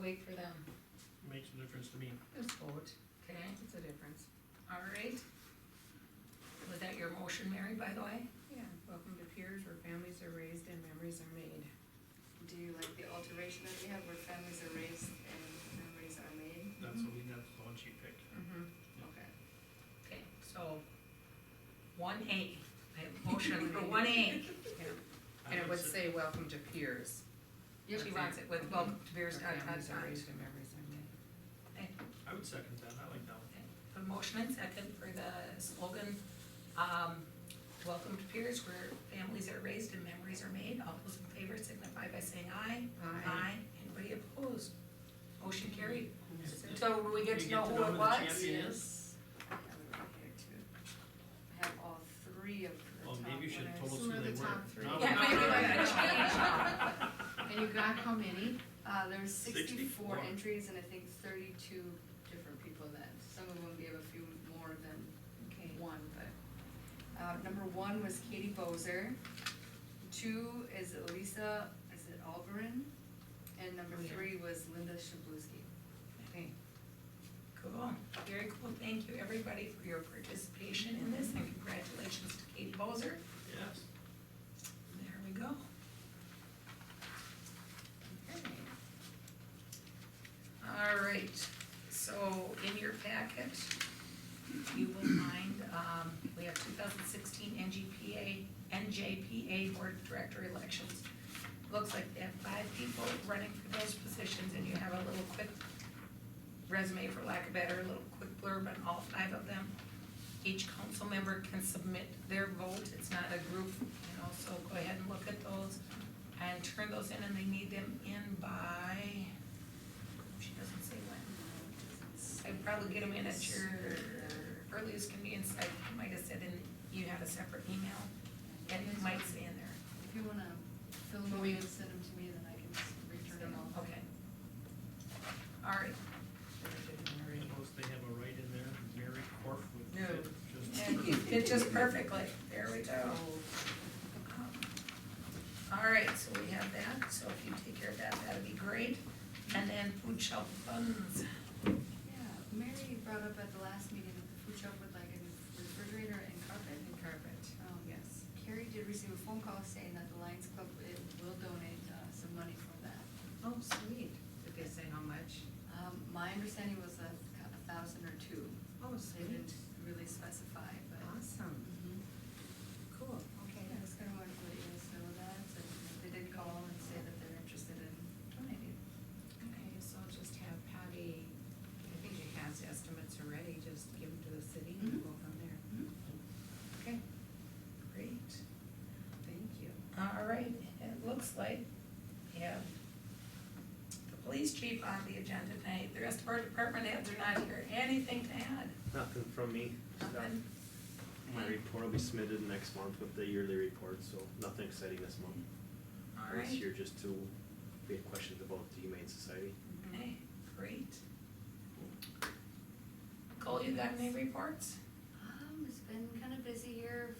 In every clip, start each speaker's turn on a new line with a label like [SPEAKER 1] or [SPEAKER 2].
[SPEAKER 1] wait for them?
[SPEAKER 2] makes a difference to me.
[SPEAKER 3] There's vote,
[SPEAKER 1] Okay,
[SPEAKER 3] it's a difference.
[SPEAKER 1] all right. Was that your motion, Mary, by the way?
[SPEAKER 3] Yeah, welcome to Piers where families are raised and memories are made.
[SPEAKER 4] Do you like the alteration that we have where families are raised and memories are made?
[SPEAKER 2] That's what we, that's the one she picked.
[SPEAKER 3] Mm-hmm.
[SPEAKER 4] Okay.
[SPEAKER 1] Okay, so, one A, I have a motion for one A.
[SPEAKER 3] And it
[SPEAKER 2] I
[SPEAKER 3] would say, welcome to Piers.
[SPEAKER 1] She wants it with welcome to Bears
[SPEAKER 3] where
[SPEAKER 1] Dot Dot
[SPEAKER 3] Families are
[SPEAKER 1] Dot.
[SPEAKER 3] raised and memories are made.
[SPEAKER 2] I would second that, I like that one.
[SPEAKER 1] A motion and second for the slogan, um, welcome to Piers where families are raised and memories are made. All those in favor signify by saying aye.
[SPEAKER 3] Aye.
[SPEAKER 1] Anybody opposed? Motion carried.
[SPEAKER 2] Yeah.
[SPEAKER 1] So do we get to
[SPEAKER 2] We
[SPEAKER 1] know who it
[SPEAKER 2] the
[SPEAKER 1] was?
[SPEAKER 2] champion is?
[SPEAKER 4] Yes. I have it right here too. I have all three of the
[SPEAKER 2] Well,
[SPEAKER 4] top
[SPEAKER 2] maybe you should
[SPEAKER 4] winners.
[SPEAKER 2] total
[SPEAKER 3] Who
[SPEAKER 2] who
[SPEAKER 3] are
[SPEAKER 2] they
[SPEAKER 3] the
[SPEAKER 2] were.
[SPEAKER 3] top three?
[SPEAKER 2] No,
[SPEAKER 1] Yeah,
[SPEAKER 2] not
[SPEAKER 1] maybe we
[SPEAKER 2] really.
[SPEAKER 1] can change.
[SPEAKER 3] And you got how many?
[SPEAKER 4] Uh, there's sixty-four
[SPEAKER 2] 64.
[SPEAKER 4] entries and I think thirty-two different people that, some of them gave a few more than
[SPEAKER 3] Okay.
[SPEAKER 4] one, but. Uh, number one was Katie Bozer, two is Elisa, is it Alberin? And number
[SPEAKER 3] Oh, yeah.
[SPEAKER 4] three was Linda Shabluski.
[SPEAKER 3] Okay.
[SPEAKER 1] Cool, very cool. Thank you, everybody, for your participation in this and congratulations to Katie Bozer.
[SPEAKER 2] Yes.
[SPEAKER 1] There we go. Okay. All right, so in your packet, if you will find, um, we have two thousand sixteen NGPA, NJPA Board of Director elections. Looks like they have five people running for those positions, and you have a little quick resume, for lack of better, a little quick blurb on all five of them. Each council member can submit their vote, it's not a group, you know, so go ahead and look at those and turn those in, and they need them in by, she doesn't say when. I'd probably get them in at your earliest convenience, I might have said in, you have a separate email, and it might say in there,
[SPEAKER 4] If you wanna fill them out and send them to me, then I can s- return them all.
[SPEAKER 1] okay. All right,
[SPEAKER 2] I suppose they have a right in there, Mary Corf would
[SPEAKER 3] No.
[SPEAKER 2] fit just.
[SPEAKER 1] and you fit just perfectly, there we go.
[SPEAKER 3] Oh,
[SPEAKER 1] Um, All right, so we have that, so if you take care of that, that'd be great. And then food shelf funds,
[SPEAKER 4] Yeah, Mary brought up at the last meeting that the food shop would like a new refrigerator and carpet.
[SPEAKER 3] And carpet,
[SPEAKER 4] Um,
[SPEAKER 3] yes.
[SPEAKER 4] Carrie did receive a phone call saying that the Lions Club it will donate, uh, some money for that.
[SPEAKER 3] Oh, sweet. Did they say how much?
[SPEAKER 4] Um, my understanding was a, a thousand or two.
[SPEAKER 3] Oh,
[SPEAKER 4] They didn't really specify, but. Mm-hmm.
[SPEAKER 3] Awesome, cool.
[SPEAKER 4] Okay, I was gonna wanted to let you guys know that, and they did call and say that they're interested in donating.
[SPEAKER 3] Okay, so I'll just have Patty, I think she has estimates already, just give them to the city and we'll go from there. Okay,
[SPEAKER 1] great.
[SPEAKER 3] thank you.
[SPEAKER 1] All right, it looks like we have the police chief on the agenda tonight, the rest of our department heads are not here, anything to add?
[SPEAKER 5] Nothing from me.
[SPEAKER 1] Nothing?
[SPEAKER 5] My report will be submitted next month with the yearly report, so nothing exciting this month.
[SPEAKER 1] All right,
[SPEAKER 5] This year, just to, we have questions about the Humane Society.
[SPEAKER 1] okay, great. Cole, you got any reports?
[SPEAKER 4] Um, it's been kind of busy here,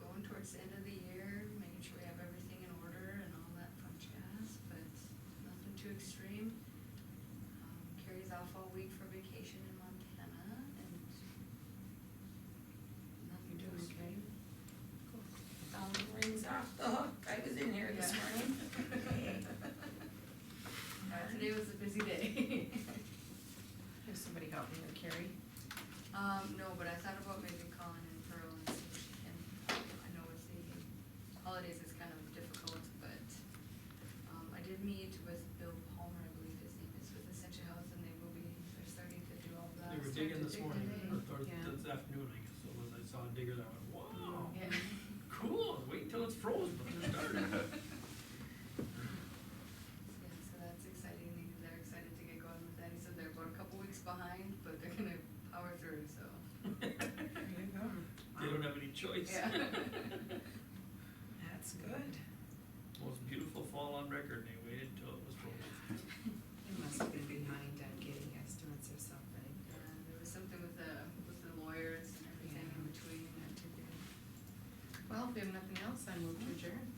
[SPEAKER 4] going towards the end of the year, making sure we have everything in order and all that fun jazz, but nothing too extreme. Um, Carrie's off all week for vacation in Montana and nothing
[SPEAKER 3] You
[SPEAKER 4] too
[SPEAKER 3] doing okay?
[SPEAKER 4] extreme.
[SPEAKER 1] Phone Um, rings off the hook, I was in here this
[SPEAKER 4] Yeah.
[SPEAKER 1] morning.
[SPEAKER 4] Uh, Today was a busy day.
[SPEAKER 3] Has somebody helped me with Carrie?
[SPEAKER 4] Um, no, but I thought about maybe calling in Pearl and see if she can, I know it's the holidays is kind of difficult, but, um, I did meet with Bill Palmer, I believe his name is, with Essentia Health, and they will be, they're starting to do all that.
[SPEAKER 2] They were digging this morning, or thor-
[SPEAKER 3] Yeah.
[SPEAKER 2] this afternoon, I guess, it was, I saw a digger that went, wow,
[SPEAKER 3] Yeah.
[SPEAKER 2] cool, wait till it's frozen, but they're starting.
[SPEAKER 4] Yeah, so that's exciting, They- they're excited to get going with that, he said they're about a couple weeks behind, but they're gonna power through, so.
[SPEAKER 1] There you go.
[SPEAKER 2] They don't have any choice.
[SPEAKER 4] Yeah.
[SPEAKER 1] That's good.
[SPEAKER 2] Most beautiful fall on record, and they waited till it was frozen.
[SPEAKER 3] They must have been behind on getting estimates or something.
[SPEAKER 4] And there was something with the, with the lawyers and everything in
[SPEAKER 3] Yeah.
[SPEAKER 4] between, and to do.
[SPEAKER 3] Well, if we have nothing else, I move to adjourn.